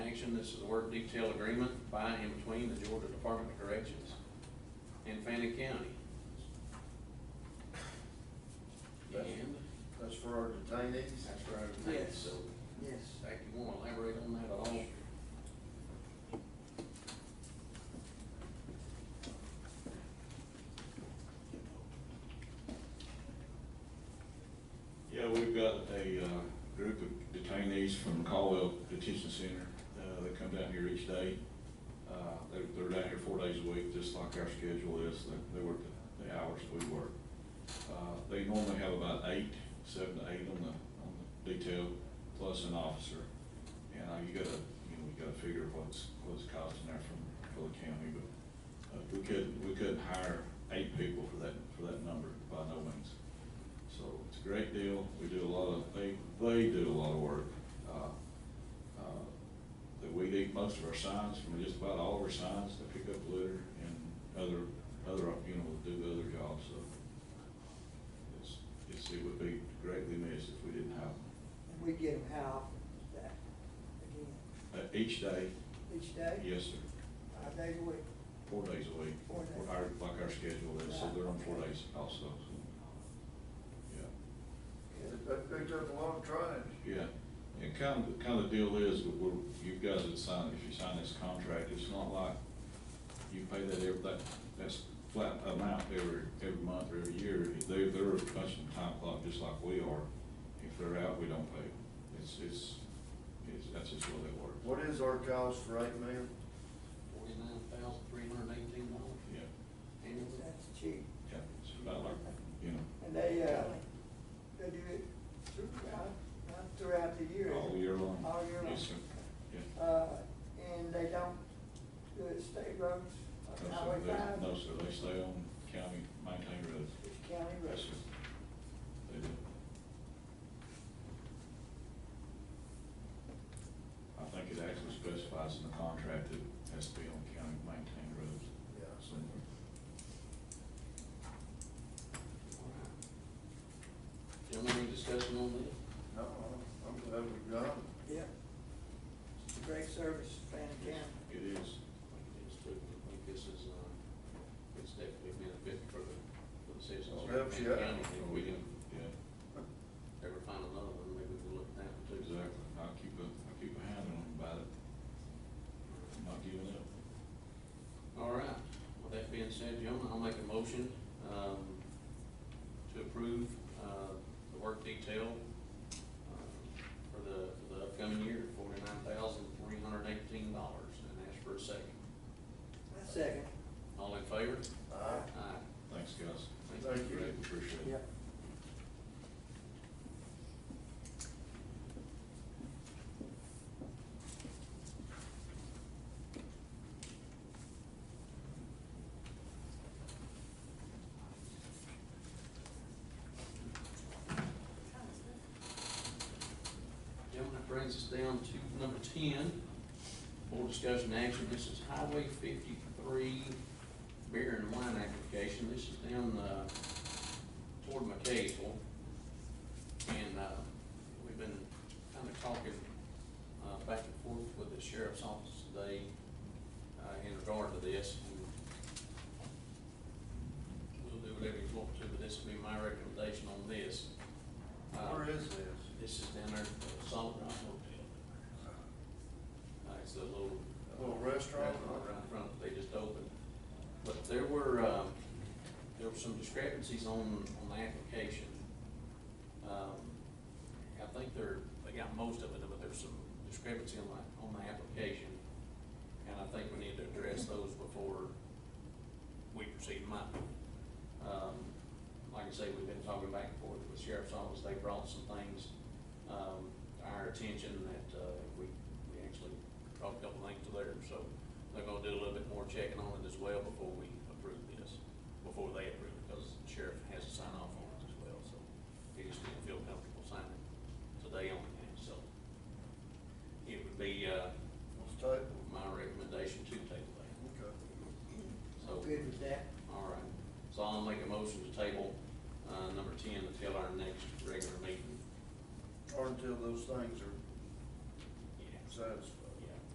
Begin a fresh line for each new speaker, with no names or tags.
resolution, this is the work detail agreement by and between the Georgia Department of Corrections and Fannin County. And
That's for our detainees.
that's for our detainees, so,
Yes.
Zach, you wanna elaborate on that at all?
Yeah, we've got a uh, group of detainees from Caldwell Detention Center uh, that come down here each day. Uh, They're, they're down here four days a week, just like our schedule is. They- They work the- the hours we work. Uh, They normally have about eight, seven to eight on the, on the detail, plus an officer. And uh, you gotta, you know, you gotta figure what's, what's costing there from, for the county, but uh, we couldn't, we couldn't hire eight people for that, for that number by no means. So it's a great deal. We do a lot of, they, they do a lot of work. Uh, uh, That we eat most of our signs, from just about all of our signs, they pick up litter and other, other, you know, do the other jobs, so. It's, it's, it would be greatly missed if we didn't have them.
And we get them how often is that, again,
Uh, Each day,
each day?
yes, sir,
Five days a week?
four days a week,
Four days.
our, like our schedule is, so they're on four days also, so. Yeah.
They picked up a lot of trash.
Yeah, and kind of, kind of the deal is, that we're, you guys would sign, if you sign this contract, it's not like you pay that every, that, that's flat amount every, every month or every year. They, they're a bunch of time clock, just like we are. If they're out, we don't pay. It's, it's, it's, that's just the way they work.
What is our cost for eight men?
Forty-nine thousand, three hundred and eighteen dollars.
Yeah,
And
That's cheap.
yeah, it's about like, you know,
And they, uh, they do it throughout, not throughout the year. is
all
it?
year long.
All year long.
Yes, sir, yeah.
Uh, and they don't do it state roads,
No,
like
sir,
highway
they-
five,
No, sir, they stay on county maintained roads.
it's county
Yes,
roads.
sir. They do. I think it actually specifies in the contract that it has to be on county maintained roads.
Yeah.
Somewhere.
Gentlemen, any discussion on this?
No, I'm glad we got them.
Yep. It's a great service, Fannin County.
It is.
It is true. I think this is, uh, it's definitely a benefit for the, for the citizens. of
Helps you out.
Fannin County. If we can
Oh, Yeah,
ever find another one, maybe we'll look at that one too.
exactly. I'll keep a, I'll keep a hand on them about it. I'm not giving up.
All right, with that being said, gentlemen, I'll make a motion, um, to approve, uh, the work detail, uh, for the, for the upcoming year, forty-nine thousand, three hundred and eighteen dollars, and ask for a second.
I second.
All in favor?
Aye.
Aye.
Thanks, guys.
Thank you.
Greatly Appreciate it.
Yep.
Gentlemen, that brings us down to number ten, board discussion action, this is Highway fifty-three beer and wine application, this is down, uh, toward McCaseville. And, uh, we've been kinda talking, uh, back and forth with the sheriff's office today, uh, in regard to this. We'll do whatever you want to, but this will be my recommendation on this. Uh,
Where is this?
this is down there, at Solid Rock Hotel. Uh, it's a little. uh,
Little restaurant?
Right in front, they just opened. But there were, um, there were some discrepancies on, on the application. Um, I think they're, they got most of it, but there's some discrepancy on the, on the application. And I think we need to address those before we proceed money. Um, like I say, we've been talking back and forth with sheriff's office, they brought some things, um, to our attention that, uh, we, we actually brought a couple things to there, so they're gonna do a little bit more checking on it as well before we approve this, before they approve it, because the sheriff uh, uh,